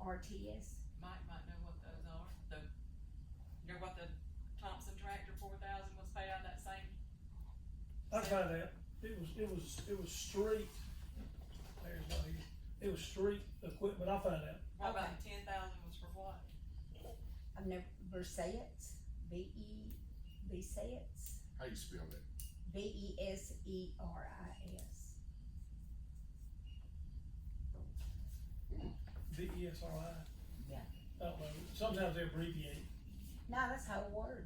RTS. Mike might know what those are, the, you know what the Thompson tractor four thousand was paid out of that same, I found out, it was, it was, it was street, there's not here, it was street equipment, I found out. what about the ten thousand was for what? I've never, Versets, B E, Besets, How you spell that? B E S E R I S. V E S R I. Yeah. I don't know, sometimes they abbreviate, No, that's whole word.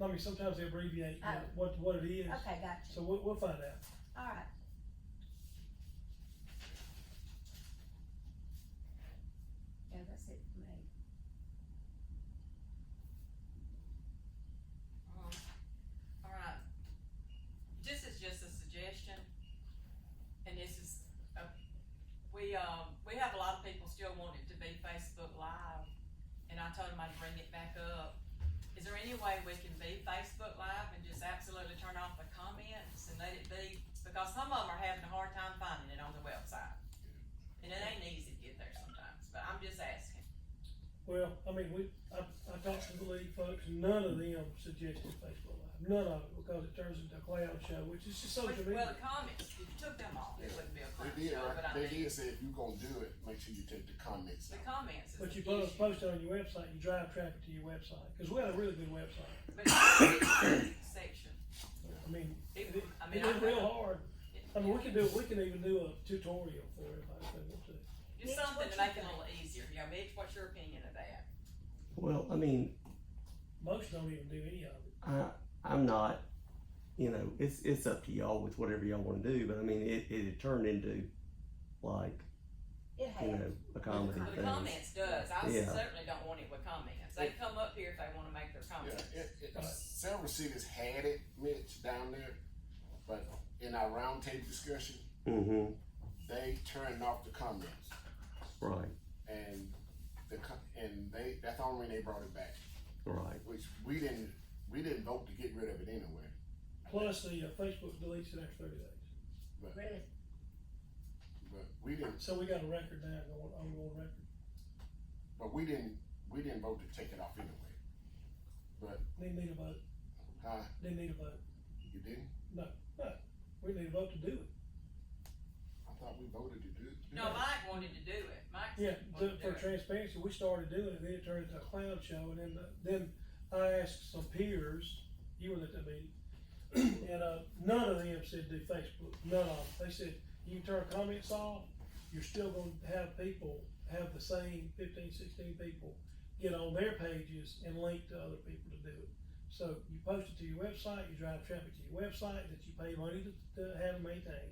I mean, sometimes they abbreviate what- Oh. what, what it is, Okay, gotcha. so we'll, we'll find out. All right. Yeah, that's it for me. Um, All right, this is just a suggestion, and this is, uh, we, um, we have a lot of people still want it to be Facebook Live, and I told them I'd bring it back up. Is there any way we can be Facebook Live and just absolutely turn off the comments and let it be, because some of them are having a hard time finding it on the website. And it ain't easy to get there sometimes, but I'm just asking. Well, I mean, we, I, I talked to the league folks, none of them suggested Facebook Live, none of it, because it turns into a clown show, which is just social Well, media. the comments, if you took them off, it wouldn't be a crime They did, show, but I right? mean. They did say if you gonna do it, make sure you take the comments The out. comments is But the you issue. post, post it on your website, you drive traffic to your website, cause we had a really good website, But it's a section. I mean, It- it, I mean, it is I- real hard, I mean, we can do, we can even do a tutorial for everybody if they want to. Just something to make it a little easier, you know, Mitch, what's your opinion of that? Well, I mean, Most don't even do any of it. I I'm not, you know, it's it's up to y'all with whatever y'all want to do, but I mean, it it had turned into like It you has. know a comedy The thing. comments does, I Yeah. certainly don't want it with comments, they come up here if they wanna make their Yeah, comments. it, it, uh, several cities had it, Mitch, down there, but in our roundtable discussion, Mm-hmm. they turned off the comments. Right. And the, co- and they, that's the only reason they brought it back, Right. which we didn't, we didn't vote to get rid of it anyway. Plus, the uh, Facebook deletes it after thirty days, Really? But we didn't, so we got a record now, going, ongoing record. but we didn't, we didn't vote to take it off anyway. But, They need a vote, huh, they need a vote, you didn't? we need a vote to do it. I thought we voted to do. do No, that. Mike wanted to do it, Mike Yeah, said he the, wanted to for do it. transparency, we started doing it, then it turned into a clown show, and then, then I asked some peers, you were at the meeting, and, uh, none of them said do Facebook, none of them, they said, you turn comments off, you're still gonna have people, have the same fifteen, sixteen people get on their pages and link to other people to do it. So you post it to your website, you drive traffic to your website that you pay money to, to have and maintain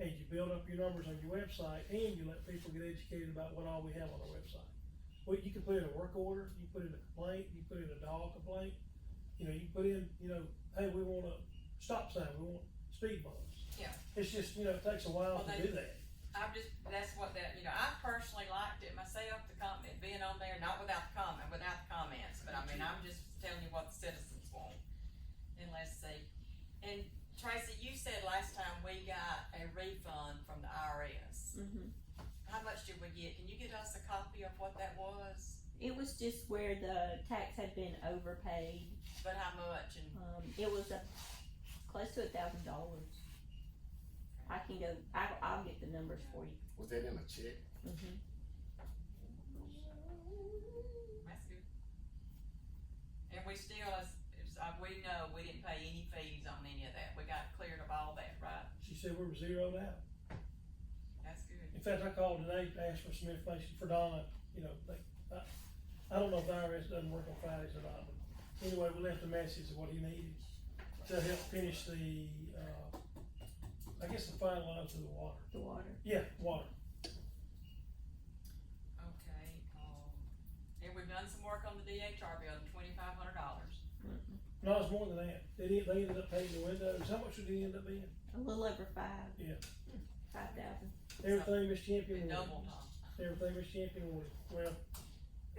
and you build up your numbers on your website, and you let people get educated about what all we have on our website. Well, you can put in a work order, you put in a complaint, you put in a dog complaint, you know, you put in, you know, hey, we want a stop sign, we want speed bumps. Yeah. It's just, you know, it takes a while Well, to they- do that. I'm just, that's what that, you know, I personally liked it myself, the comment, being on there, not without the comment, without the comments, but I mean, I'm just telling you what the citizens want. And let's see, and Tracy, you said last time we got a refund from the IRS. hmm How much did we get? Can you get us a copy of what that was? It was just where the tax had been overpaid. But how much and, Um, it was a, close to a thousand dollars. I can go. I, I'll get the numbers for you. Was that in a check? hmm that's good. And we still, as, as, uh, we know, we didn't pay any fees on any of that. We got cleared of all that, right? She said we were zeroed out. That's good. In fact, I called today to ask for some information for Donna, you know, like, I, I don't know if the IRS doesn't work on Fridays or not, but anyway, we left a message of what he needed to help finish the, uh, I guess the final lines of the water. The water. Yeah, water. Okay, um, and we've done some work on the DHR bill, twenty-five hundred dollars. No, it's more than that. They did, they ended up painting the windows. How much did it end up being? A little over five. Yeah. Five thousand. Everything Miss Champion It wanted. doubled, huh? Everything Miss Champion wanted. Well,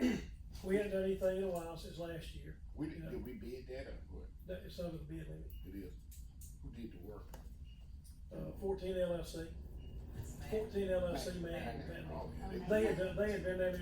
we hadn't done anything in a while since last year. We, did did we bid that or what? That is under the bid limit. It is. Who did the work? Uh, fourteen LLC, That's bad. fourteen LLC man. Oh, yeah, they- They had, done- they had been there